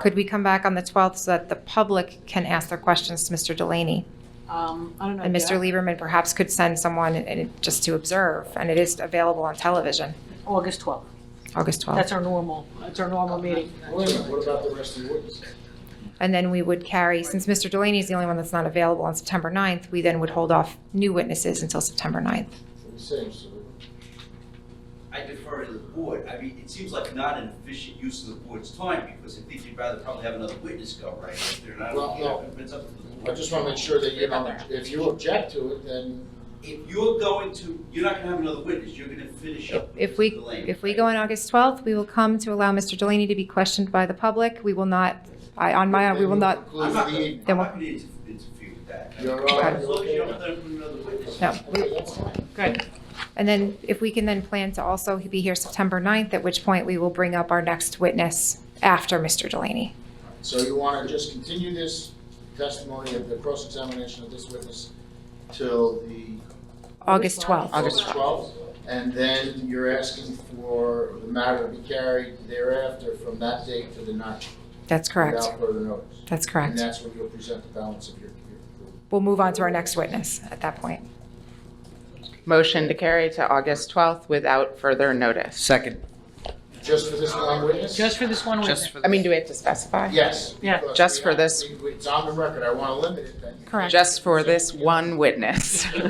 Could we come back on the 12th so that the public can ask their questions to Mr. Delaney? Um, I don't know. And did I- Mr. Lieberman perhaps could send someone and- and just to observe, and it is available on television, August 12th. August 12th. That's our normal, that's our normal meeting. Wait a minute, what about the rest of the witnesses? And then we would carry, since Mr. Delaney is the only one that's not available on September 9th, we then would hold off new witnesses until September 9th. It seems, so I defer to the board. I mean, it seems like not an efficient use of the board's time, because I think you'd rather probably have another witness go, right? If they're not, Well, no. if it's up to the board. I just want to make sure that you don't, if you object to it, then If you're going to, you're not gonna have another witness, you're gonna finish up. with If we, Mr. Delaney, if we right? go on August 12th, we will come to allow Mr. Delaney to be questioned by the public. We will not, I, on my, we will not, I'm Conclude not, the gonna- evening. I'm not gonna inter- interfere with that. You're all right, As long as you you're don't have another witness. no. Okay, that's fine. Good. And then if we can then plan to also be here September 9th, at which point we will bring up our next witness after Mr. Delaney. So you want to just continue this testimony of the cross-examination of this witness till the August 12th. August 12th, and then you're asking for the matter to be carried thereafter from that date to the 9th. That's correct. Without further notice. That's And correct. that's when you'll present the balance of your, your We'll move on to our next witness at that point. Motion to carry to August 12th without further notice. Second, Just for this one witness? Just for this one just witness. for. I mean, do we have to specify? Yes. Yeah. because Just we for have- this- we- It's on the record, I want to limit it then. Correct. Just for this one witness.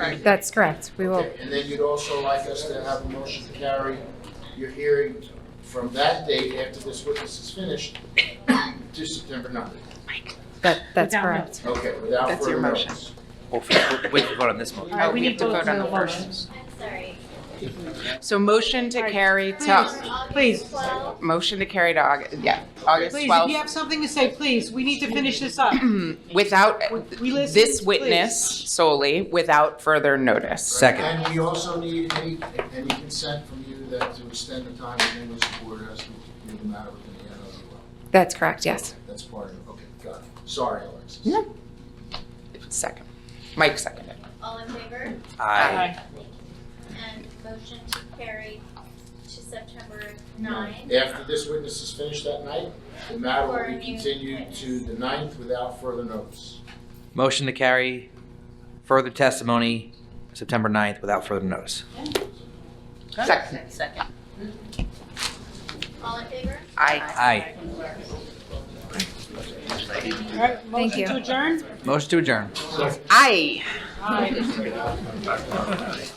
Right. That's correct. We will, Okay, And then you'd also like us to have a motion to carry your hearing from that date after this witness is finished to September 9th. that, that's Without correct. Okay, without That's your further motion. notice. Well, f- wait, vote on this All motion. right, Oh, we we need have to both vote on no the votes. first. I'm sorry. So motion to carry to, Please, motion to carry to August, yeah, August please, if you 12th. have something to say, please, we need to finish this up. Without, We listen, this please. witness solely, without further notice. Second, And we also need any, any consent from you that to extend the time within which the board has to review the matter within the NOU. That's correct, yes. That's part of, okay, got it. Sorry, Alexis. No. Second. Mike seconded. All in favor? aye. Aye. And motion to carry to September 9. After this witness is finished that night, the matter will be Or you- continued to the 9th without further notice. Motion to carry further testimony September 9th without further notice. Second. All in favor? Aye. Aye. All right, motion you. to adjourn? Motion to adjourn. Aye. Aye.